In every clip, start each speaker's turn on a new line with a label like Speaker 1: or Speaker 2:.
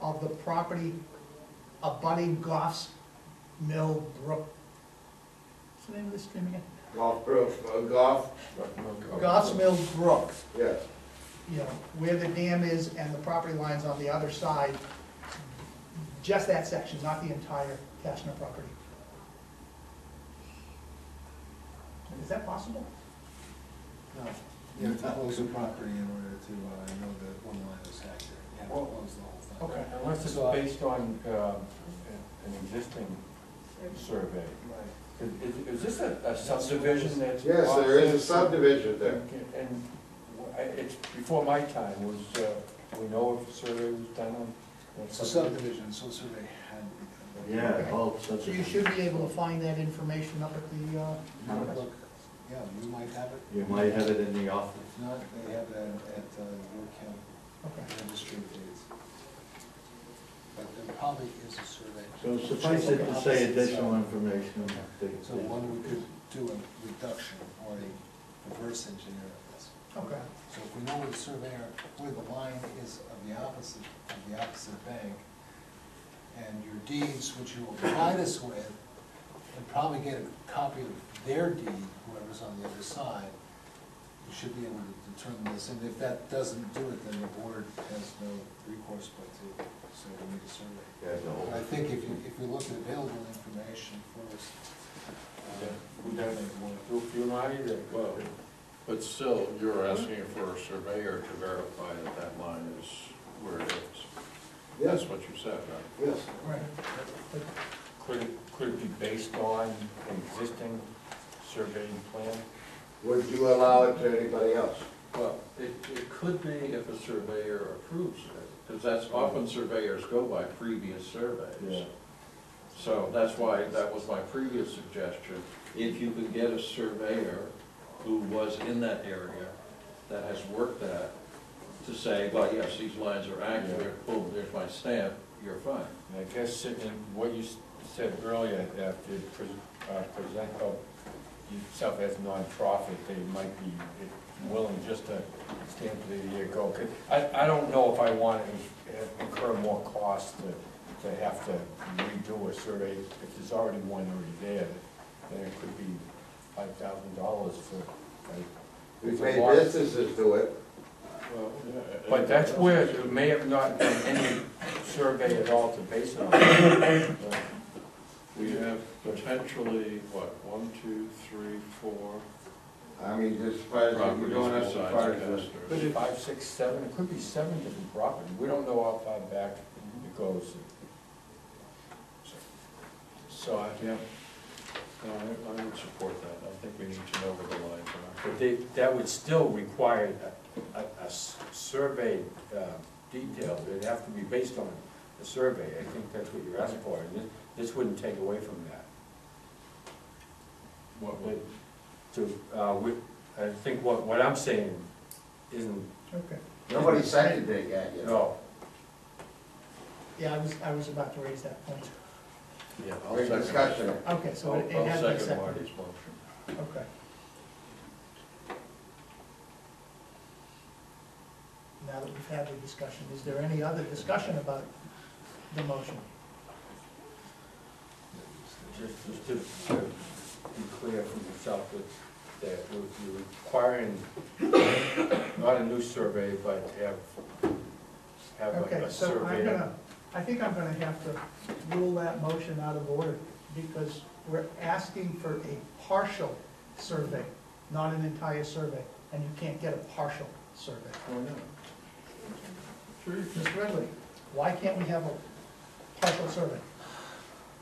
Speaker 1: of the property abutting Goff's Mill Brook. What's the name of this stream again?
Speaker 2: Golf Brook, uh, golf.
Speaker 1: Goff's Mill Brook,
Speaker 2: Yes,
Speaker 1: you know, where the dam is and the property line's on the other side. Just that section, not the entire Cashner property. Is that possible?
Speaker 3: No, you have to close the property in order to, uh, know that one line is accurate, you have to close the whole thing.
Speaker 1: Okay.
Speaker 4: Unless it's based on um, an existing survey.
Speaker 3: Right.
Speaker 4: Is- Is this a a subdivision that's?
Speaker 2: yes, there is a subdivision there.
Speaker 4: And I- it's before my time, was, uh, we know if a survey was done on? on
Speaker 3: It's a subdivision, so survey had to be done.
Speaker 5: Yeah, well, such
Speaker 1: So you should be able to find that information up at the, uh,
Speaker 3: You might look- Yeah, you might have it,
Speaker 5: You might have it in the office.
Speaker 3: if not, they have it at, at uh, York County
Speaker 1: okay.
Speaker 3: Registry of Deeds. But there probably is a survey.
Speaker 5: So suffice it to say additional information.
Speaker 3: So one, we could do a reduction or a reverse engineer of this.
Speaker 1: Okay,
Speaker 3: So if we know where the surveyor, where the line is of the opposite, of the opposite bank, and your deeds, which you will provide us with, and probably get a copy of their deed, whoever's on the other side, you should be able to determine this, and if that doesn't do it, then the board has no recourse but to, so we need a survey.
Speaker 5: Yeah, no.
Speaker 3: But I think if you, if you look at available information first, uh,
Speaker 4: We don't even want to do a funerary,
Speaker 6: Well, but still, you're asking for a surveyor to verify that that line is where it is. That's
Speaker 2: Yes,
Speaker 6: what you said, right?
Speaker 2: yes.
Speaker 1: right. But
Speaker 4: could it, could it be based on an existing surveying plan?
Speaker 2: Would you allow it to anybody else?
Speaker 6: Well, it, it could be if a surveyor approves it, because that's often surveyors go by previous surveys. So that's why, that was my previous suggestion. If you could get a surveyor who was in that area, that has worked that, to say, well, yes, these lines are accurate, boom, there's my stamp, you're fine.
Speaker 4: And I guess in what you s- said earlier, that to pres- uh, present yourself as nonprofit, they might be willing just to stand for the year go. 'Cause I, I don't know if I want to uh, incur more costs to, to have to redo a survey. If there's already one already there, then it could be five thousand dollars for, like.
Speaker 2: We've
Speaker 4: it's a
Speaker 2: made
Speaker 4: lot.
Speaker 2: businesses do it.
Speaker 4: But that's where it may have not been any survey at all to base it on.
Speaker 6: We have potentially, what, one, two, three, four
Speaker 2: I mean, just as far as we're
Speaker 6: properties
Speaker 2: going as
Speaker 6: besides
Speaker 2: far as.
Speaker 4: Could
Speaker 6: Custer's.
Speaker 4: be five, six, seven, it could be seven different properties, we don't know how far back it goes. So, I-
Speaker 6: Yeah. No, I, I would support that. I think we need to know where the lines are.
Speaker 4: but they, that would still require a, a- a s- survey uh, detail, it'd have to be based on the survey, I think that's what you're asking for, and this, this wouldn't take away from that.
Speaker 6: What would,
Speaker 4: To, uh, we, I think what, what I'm saying isn't,
Speaker 1: Okay,
Speaker 2: Nobody seconded it yet, you know?
Speaker 4: no,
Speaker 1: yeah, I was, I was about to raise that point.
Speaker 6: yeah, I'll
Speaker 2: Great
Speaker 6: second.
Speaker 2: discussion.
Speaker 1: Okay, so
Speaker 6: I'll-
Speaker 1: it it has
Speaker 6: I'll
Speaker 1: been
Speaker 6: second
Speaker 1: seconded,
Speaker 6: Marty's motion.
Speaker 1: okay. Now that we've had the discussion, is there any other discussion about the motion?
Speaker 4: just, just to to be clear from yourself that, that we're we're requiring not a new survey, but have, have a-
Speaker 1: Okay,
Speaker 4: a
Speaker 1: so I'm
Speaker 4: survey.
Speaker 1: gonna, I think I'm gonna have to rule that motion out of order, because we're asking for a partial survey, not an entire survey, and you can't get a partial survey.
Speaker 2: Oh,
Speaker 6: Why not? Sure you
Speaker 1: Mr. Ridley, why can't we have a partial survey?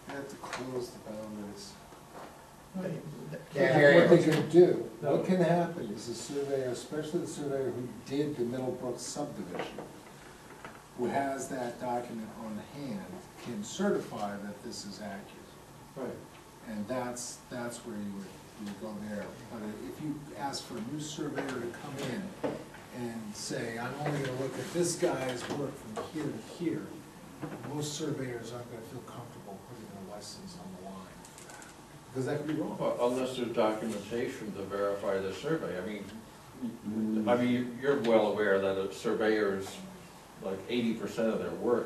Speaker 3: you have to close the boundaries.
Speaker 2: Can't hear
Speaker 3: What they
Speaker 2: you.
Speaker 3: can do, what can happen is the surveyor, especially the surveyor who did the Middlebrook subdivision, who has that document on hand, can certify that this is accurate.
Speaker 6: Right.
Speaker 3: And that's, that's where you would, you would go there. But if you ask for a new surveyor to come in and say, I'm only gonna look at this guy's work from here to here, most surveyors aren't gonna feel comfortable putting their license on the line. Because that could be wrong.
Speaker 6: Well, Unless there's documentation to verify the survey, I mean, I mean, you're well aware that a surveyor's, like eighty percent of their work